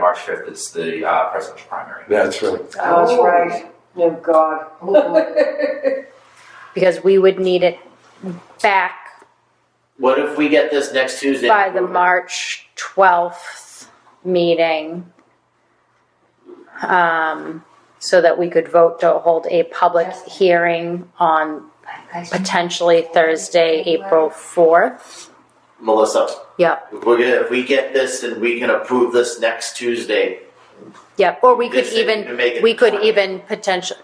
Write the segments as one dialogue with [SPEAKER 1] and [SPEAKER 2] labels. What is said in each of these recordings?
[SPEAKER 1] March 5th, it's the uh, presidential primary.
[SPEAKER 2] That's right.
[SPEAKER 3] Oh, that's right. Oh, God.
[SPEAKER 4] Oh.
[SPEAKER 5] because we would need it back
[SPEAKER 6] What if we get this next Tuesday?
[SPEAKER 5] by the March twelfth meeting. Um, so that we could vote to hold a public hearing on potentially Thursday, April fourth.
[SPEAKER 6] Melissa.
[SPEAKER 5] Yep.
[SPEAKER 6] If we're gonna, if we get this and we can approve this next Tuesday.
[SPEAKER 5] Yep, or we could
[SPEAKER 6] this thing,
[SPEAKER 5] even
[SPEAKER 6] can make it
[SPEAKER 5] we could
[SPEAKER 6] twenty.
[SPEAKER 5] even potential,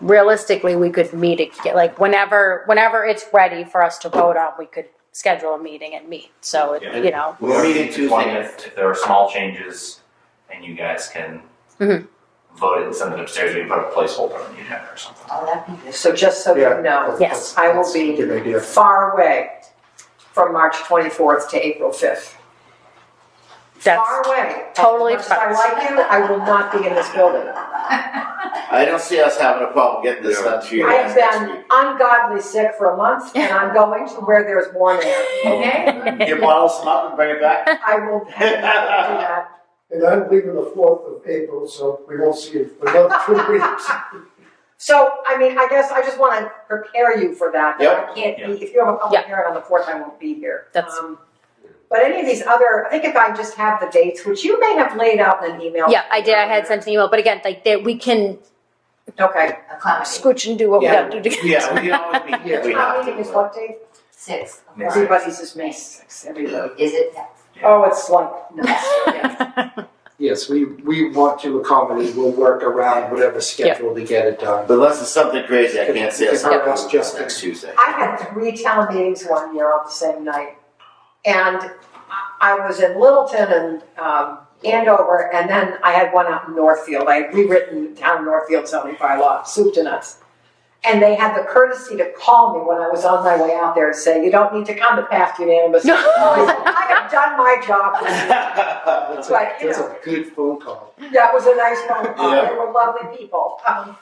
[SPEAKER 5] realistically, we could meet, ag- like, whenever, whenever it's ready for us to vote on, we could schedule a meeting and meet, so, it-
[SPEAKER 1] Yeah.
[SPEAKER 5] you know.
[SPEAKER 6] We're meeting
[SPEAKER 1] The
[SPEAKER 6] Tuesday.
[SPEAKER 1] 20th, If there are small changes and you guys can
[SPEAKER 5] Mhm.
[SPEAKER 1] vote it and send it upstairs, we can put a placeholder on the agenda or something.
[SPEAKER 3] So just so
[SPEAKER 2] Yeah.
[SPEAKER 3] you know,
[SPEAKER 5] Yes.
[SPEAKER 3] I will
[SPEAKER 2] That's a
[SPEAKER 3] be
[SPEAKER 2] Good idea.
[SPEAKER 3] far away from March 24th to April 5th.
[SPEAKER 5] That's,
[SPEAKER 3] Far away.
[SPEAKER 5] totally
[SPEAKER 3] As much as I like him, I will not be in this building.
[SPEAKER 6] I don't see us having a problem getting this
[SPEAKER 2] Yeah.
[SPEAKER 6] done to you
[SPEAKER 3] I
[SPEAKER 6] guys
[SPEAKER 3] have
[SPEAKER 6] next
[SPEAKER 3] been ungodly sick for a month and I'm going to where there's warm air.
[SPEAKER 6] week. You bottle some up and bring it back?
[SPEAKER 3] I will do that.
[SPEAKER 7] And I'm leaving the fourth of April, so we won't see you for another two weeks.
[SPEAKER 3] So, I mean, I guess I just wanna prepare you for that.
[SPEAKER 6] Yep.
[SPEAKER 3] I can't be, if you have a public
[SPEAKER 5] Yeah.
[SPEAKER 3] hearing on the fourth, I won't be here.
[SPEAKER 5] That's-
[SPEAKER 3] Um, But any of these other, I think if I just have the dates, which you may have laid out in an email.
[SPEAKER 5] yeah, I did, I had sent an email, but again, like, that, we can
[SPEAKER 3] Okay.
[SPEAKER 5] scooch and do what we
[SPEAKER 6] Yeah.
[SPEAKER 5] gotta do together.
[SPEAKER 6] Yeah, we can always meet here if we
[SPEAKER 3] Town
[SPEAKER 6] have
[SPEAKER 3] meeting is
[SPEAKER 6] to.
[SPEAKER 3] what date?
[SPEAKER 4] Six.
[SPEAKER 1] May sixth.
[SPEAKER 3] Everybody's just May sixth, everybody.
[SPEAKER 4] Is it?
[SPEAKER 3] Oh, it's like, no.
[SPEAKER 2] Yes, we, we want to accommodate, we'll work around whatever schedule to get it done.
[SPEAKER 6] Unless it's something crazy, I can't say it's
[SPEAKER 2] Yeah.
[SPEAKER 6] not
[SPEAKER 2] Yeah.
[SPEAKER 6] just next Tuesday.
[SPEAKER 3] I had three town meetings one year on the same night. And I- I was in Littleton and um, Andover, and then I had one out in Northfield. I had rewritten town Northfield zoning bylaw, soup to nuts. And they had the courtesy to call me when I was on my way out there and say, you don't need to come to pass unanimous.
[SPEAKER 5] No.
[SPEAKER 3] I said, "I have done my job.
[SPEAKER 2] That's a,
[SPEAKER 3] But, you
[SPEAKER 2] that's
[SPEAKER 3] know,
[SPEAKER 2] a good phone call.
[SPEAKER 3] that was a nice phone call.
[SPEAKER 6] Yeah.
[SPEAKER 3] They were lovely people. Um,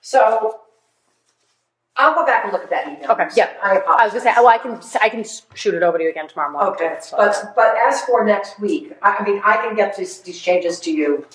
[SPEAKER 3] So I'll go back and look at that email.
[SPEAKER 5] Okay, yeah.
[SPEAKER 3] I apologize.
[SPEAKER 5] I was gonna say, oh, I can, I can shoot it over to you again tomorrow morning.
[SPEAKER 3] Okay,
[SPEAKER 5] That's fine.
[SPEAKER 3] but, but as for next week, I, I mean, I can get these, these changes to you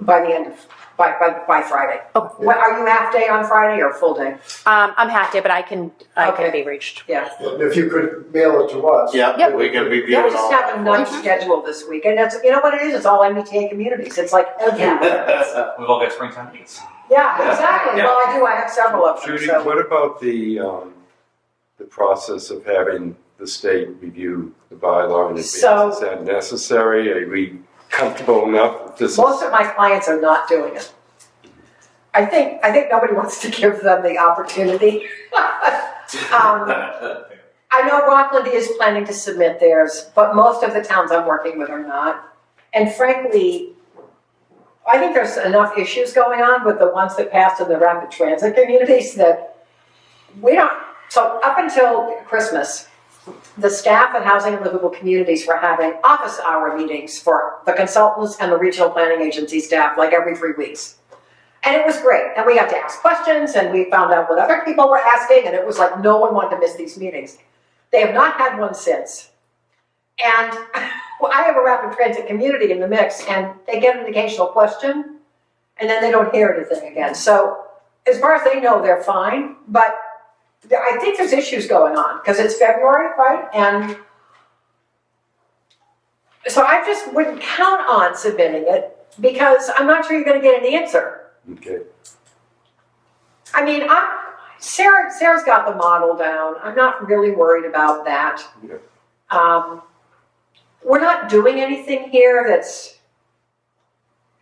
[SPEAKER 3] by the end of, by, by, by Friday.
[SPEAKER 5] Okay.
[SPEAKER 3] What, are you half day on Friday or full day?
[SPEAKER 5] Um, I'm hacked it, but I can, I can
[SPEAKER 3] Okay.
[SPEAKER 5] be reached.
[SPEAKER 3] Yeah.
[SPEAKER 7] And if you could mail it to us.
[SPEAKER 6] Yeah,
[SPEAKER 5] Yep.
[SPEAKER 6] we can review
[SPEAKER 3] Yeah, we
[SPEAKER 6] it
[SPEAKER 3] just
[SPEAKER 6] all.
[SPEAKER 3] have a nice schedule this week, and that's, you know what it is, it's all MBTA communities, it's like everywhere.
[SPEAKER 1] We've all got springtime meetings.
[SPEAKER 3] Yeah, exactly, well, I do, I have several of them,
[SPEAKER 8] Judy,
[SPEAKER 3] so.
[SPEAKER 8] what about the, um, the process of having the state review the bylaw in
[SPEAKER 3] So-
[SPEAKER 8] advance? Is that necessary? Are we comfortable enough with this?
[SPEAKER 3] Most of my clients are not doing it. I think, I think nobody wants to give them the opportunity. Um, I know Rockland is planning to submit theirs, but most of the towns I'm working with are not. And frankly, I think there's enough issues going on with the ones that passed in the rapid transit communities that we don't, so up until Christmas, the staff at Housing and Livable Communities were having office hour meetings for the consultants and the regional planning agency staff, like every three weeks. And it was great, and we got to ask questions, and we found out what other people were asking, and it was like, no one wanted to miss these meetings. They have not had one since. And well, I have a rapid transit community in the mix, and they get an occasional question, and then they don't hear anything again. So as far as they know, they're fine, but I think there's issues going on, because it's February, right? And so I just wouldn't count on submitting it, because I'm not sure you're gonna get an answer.
[SPEAKER 8] Okay,
[SPEAKER 3] I mean, I'm, Sarah, Sarah's got the model down. I'm not really worried about that.
[SPEAKER 8] Yeah.
[SPEAKER 3] Um, we're not doing anything here that's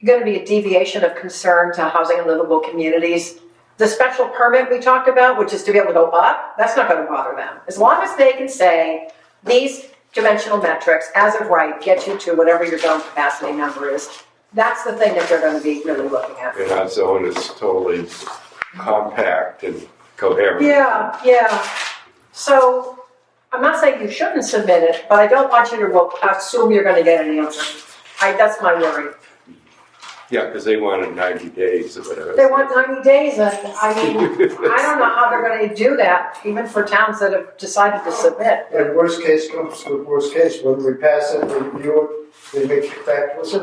[SPEAKER 3] gonna be a deviation of concern to housing and livable communities. The special permit we talked about, which is to be able to go up, that's not gonna bother them. As long as they can say, these dimensional metrics, as of right, get you to whatever your zone capacity number is. That's the thing that they're gonna be really looking at.
[SPEAKER 8] and our zone is totally compact and coherent.
[SPEAKER 3] Yeah, yeah. So I'm not saying you shouldn't submit it, but I don't want you to assume you're gonna get an answer. I, that's my worry.
[SPEAKER 8] Yeah, because they wanted ninety days or whatever.
[SPEAKER 3] They want ninety days and I mean, I don't know how they're gonna do that, even for towns that have decided to submit.
[SPEAKER 7] And worst case comes to worst case, when we pass it, we review it, they may kick back to us, and